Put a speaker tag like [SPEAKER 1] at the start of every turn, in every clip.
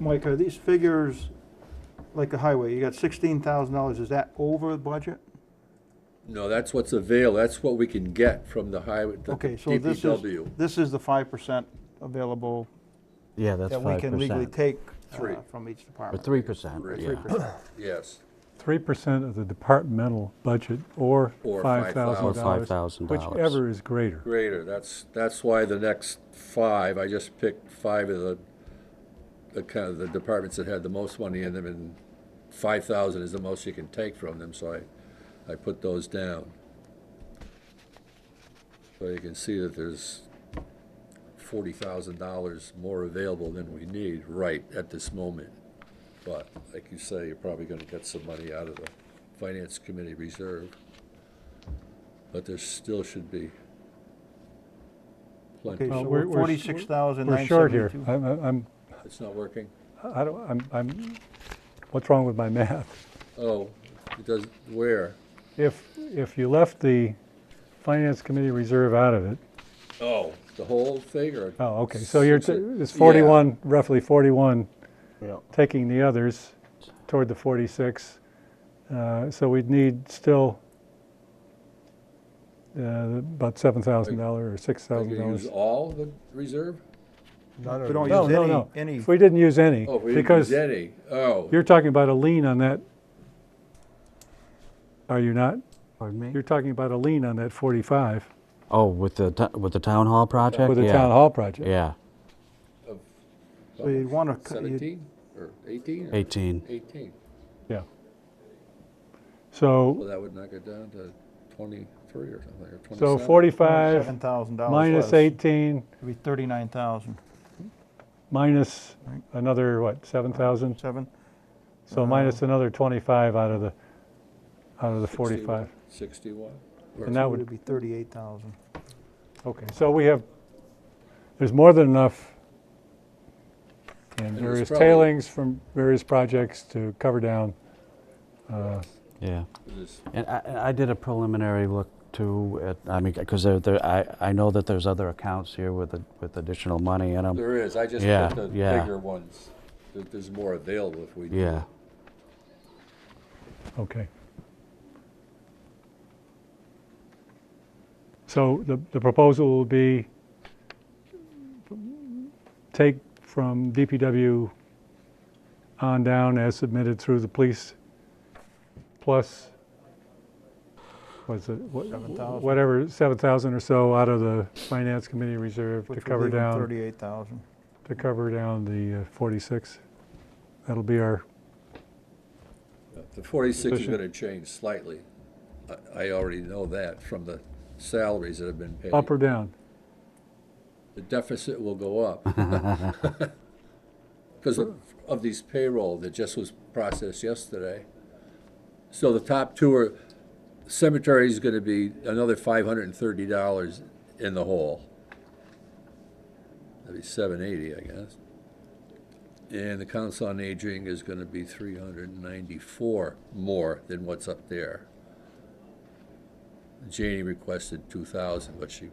[SPEAKER 1] Mike, are these figures, like the highway, you got sixteen thousand dollars, is that over budget?
[SPEAKER 2] No, that's what's available, that's what we can get from the highway, the
[SPEAKER 1] Okay, so this is,
[SPEAKER 2] DPW.
[SPEAKER 1] this is the five percent available
[SPEAKER 3] Yeah, that's
[SPEAKER 1] that we
[SPEAKER 3] five
[SPEAKER 1] can legally
[SPEAKER 3] percent.
[SPEAKER 1] take uh,
[SPEAKER 2] Three.
[SPEAKER 1] from each
[SPEAKER 3] Or
[SPEAKER 1] department.
[SPEAKER 3] three percent,
[SPEAKER 2] Right.
[SPEAKER 3] yeah.
[SPEAKER 1] 3%.
[SPEAKER 4] Uh,
[SPEAKER 2] Yes,
[SPEAKER 4] Three percent of the departmental budget or
[SPEAKER 2] Or
[SPEAKER 4] five
[SPEAKER 3] Or
[SPEAKER 4] thousand dollars.
[SPEAKER 3] $5,000.
[SPEAKER 4] Whichever is greater.
[SPEAKER 2] greater, that's, that's why the next five, I just picked five of the, the kind of the departments that had the most money in them, and five thousand is the most you can take from them, so I, I put those down. So you can see that there's forty thousand dollars more available than we need right at this moment. But, like you say, you're probably gonna get some money out of the Finance Committee reserve. But there still should be
[SPEAKER 1] Okay,
[SPEAKER 2] plenty.
[SPEAKER 1] so
[SPEAKER 4] Well,
[SPEAKER 1] we're
[SPEAKER 4] we're- we're sh-
[SPEAKER 1] forty-six thousand
[SPEAKER 4] We're
[SPEAKER 1] nine
[SPEAKER 4] short here.
[SPEAKER 1] seventy-two.
[SPEAKER 4] I'm, I'm- I'm,
[SPEAKER 2] It's not working?
[SPEAKER 4] I don't, I'm, I'm, what's wrong with my math?
[SPEAKER 2] Oh, it does, where?
[SPEAKER 4] If, if you left the finance committee reserve out of it,
[SPEAKER 2] Oh, the whole thing, or?
[SPEAKER 4] oh, okay, so you're, t-
[SPEAKER 2] Yeah.
[SPEAKER 4] it's forty-one, roughly forty-one,
[SPEAKER 3] Yeah.
[SPEAKER 4] taking the others toward the forty-six. Uh, So we'd need still uh, about seven thousand dollars or six
[SPEAKER 2] Are you
[SPEAKER 4] thousand
[SPEAKER 2] gonna
[SPEAKER 4] dollars.
[SPEAKER 2] use all the reserve?
[SPEAKER 1] We don't
[SPEAKER 4] No, no,
[SPEAKER 1] use
[SPEAKER 4] no.
[SPEAKER 1] any,
[SPEAKER 4] If
[SPEAKER 1] any,
[SPEAKER 4] we didn't use any,
[SPEAKER 2] Oh, we didn't use
[SPEAKER 4] because
[SPEAKER 2] any, oh.
[SPEAKER 4] you're talking about a lien on that. Are you not?
[SPEAKER 3] Pardon me?
[SPEAKER 4] You're talking about a lien on that 45
[SPEAKER 3] Oh, with the, to- with the town hall project?
[SPEAKER 4] for the
[SPEAKER 3] Yeah.
[SPEAKER 4] town hall project.
[SPEAKER 3] Yeah,
[SPEAKER 1] so you'd wanna, cut- you'd-
[SPEAKER 2] Seventeen, or eighteen?
[SPEAKER 3] 18.
[SPEAKER 2] Eighteen,
[SPEAKER 4] Yeah.
[SPEAKER 2] well,
[SPEAKER 4] So,
[SPEAKER 2] that would knock it down to twenty-three or something, or twenty-seven.
[SPEAKER 4] so
[SPEAKER 1] seven
[SPEAKER 4] 45
[SPEAKER 1] thousand dollars
[SPEAKER 4] minus 18,
[SPEAKER 1] It'd be thirty-nine thousand,
[SPEAKER 4] minus another, what, 7,000?
[SPEAKER 1] seven,
[SPEAKER 4] So minus another 25 out of the, out of the 45.
[SPEAKER 2] Sixty-one.
[SPEAKER 4] And
[SPEAKER 1] so
[SPEAKER 4] that
[SPEAKER 1] it'd
[SPEAKER 4] would,
[SPEAKER 1] be thirty-eight thousand.
[SPEAKER 4] okay, so we have, there's more than enough in
[SPEAKER 2] there's
[SPEAKER 4] various
[SPEAKER 2] probably-
[SPEAKER 4] tailings from various projects to cover down.
[SPEAKER 3] yeah.
[SPEAKER 2] Is-
[SPEAKER 3] And I, and I did a preliminary look too, at, I mean, because there, there, I, I know that there's other accounts here with, the- with additional money in them.
[SPEAKER 2] There is, I just
[SPEAKER 3] Yeah,
[SPEAKER 2] put the
[SPEAKER 3] yeah.
[SPEAKER 2] bigger ones, There- there's more available if we. do
[SPEAKER 3] Yeah,
[SPEAKER 4] Okay. So the, the proposal will be take from DPW on down as submitted through the police, plus, was it, wha-
[SPEAKER 1] 7,000.
[SPEAKER 4] whatever, 7,000 or so out of the finance committee reserve to
[SPEAKER 1] Which would
[SPEAKER 4] cover
[SPEAKER 1] leave them
[SPEAKER 4] down,
[SPEAKER 1] thirty-eight thousand.
[SPEAKER 4] to cover down the uh, 46. That'll be our,
[SPEAKER 2] that. The forty-six is
[SPEAKER 4] Position.
[SPEAKER 2] gonna change slightly, I, I already know that from the salaries that have been paid.
[SPEAKER 4] up or down?
[SPEAKER 2] The deficit will go up. Because of, of these payroll that just was processed yesterday. So the top two are, cemetery is gonna be another five hundred and thirty dollars in the hole. That'd be seven eighty, I guess. And the council on aging is gonna be three hundred and ninety-four more than what's up there. Janie requested two thousand, but she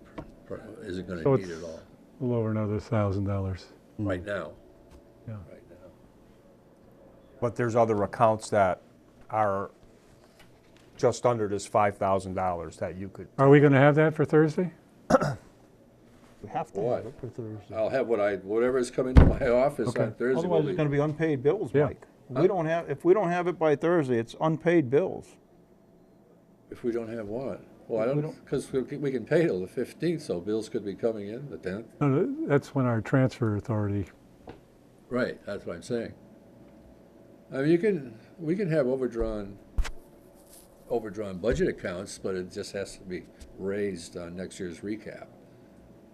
[SPEAKER 2] pr- pr- isn't
[SPEAKER 4] So
[SPEAKER 2] gonna need
[SPEAKER 4] it's-
[SPEAKER 2] it all
[SPEAKER 4] Lower another $1,000.
[SPEAKER 2] right now.
[SPEAKER 4] Yeah.
[SPEAKER 2] Right now.
[SPEAKER 5] But there's other accounts that are just under this $5,000 that you could,
[SPEAKER 4] Are we going to have that for Thursday?
[SPEAKER 1] We have
[SPEAKER 2] to have What? it
[SPEAKER 1] for Thursday.
[SPEAKER 2] I'll have what I, whatever's coming to my office
[SPEAKER 4] Okay.
[SPEAKER 2] on Thursday will
[SPEAKER 1] Otherwise, it's
[SPEAKER 2] be,
[SPEAKER 1] gonna be unpaid bills,
[SPEAKER 4] Yeah.
[SPEAKER 1] Mike. We don't have, if we don't have it by Thursday, it's unpaid bills.
[SPEAKER 2] if we don't have what? Well, I
[SPEAKER 1] If we
[SPEAKER 2] don't, because we can we can pay till the fifteenth, so bills could be coming in the tenth.
[SPEAKER 4] No, no, that's when our transfer authority,
[SPEAKER 2] Right, that's what I'm saying. I mean, you can, we can have overdrawn, overdrawn budget accounts, but it just has to be raised on next year's recap.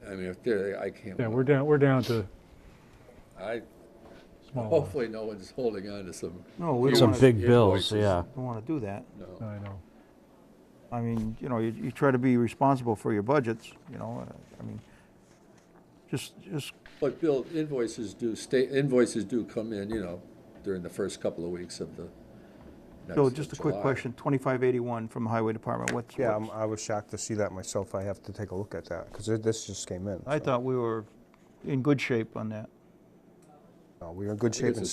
[SPEAKER 2] I mean, if there, I can't.
[SPEAKER 4] yeah, we're down, we're down to
[SPEAKER 2] I,
[SPEAKER 4] small ones.
[SPEAKER 2] hopefully no one's holding on to some,
[SPEAKER 1] No, we don't
[SPEAKER 3] some
[SPEAKER 1] wanna,
[SPEAKER 3] big bills,
[SPEAKER 2] invoices.
[SPEAKER 3] yeah.
[SPEAKER 1] don't wanna do that.
[SPEAKER 2] no.
[SPEAKER 4] I know.
[SPEAKER 1] I mean, you know, you, you try to be responsible for your budgets, you know, uh, I mean, just, just,
[SPEAKER 2] But Bill, invoices do stay, invoices do come in, you know, during the first couple of weeks of the next
[SPEAKER 1] Bill, just a quick
[SPEAKER 2] July.
[SPEAKER 1] question, twenty-five eighty-one from the Highway Department, what's?
[SPEAKER 5] yeah, I'm-
[SPEAKER 1] what's-
[SPEAKER 5] I was shocked to see that myself. I have to take a look at that, because this just came in.
[SPEAKER 1] I
[SPEAKER 5] so.
[SPEAKER 1] thought we were in good shape on that.
[SPEAKER 5] No, We're in good shape
[SPEAKER 2] it's
[SPEAKER 5] in
[SPEAKER 2] a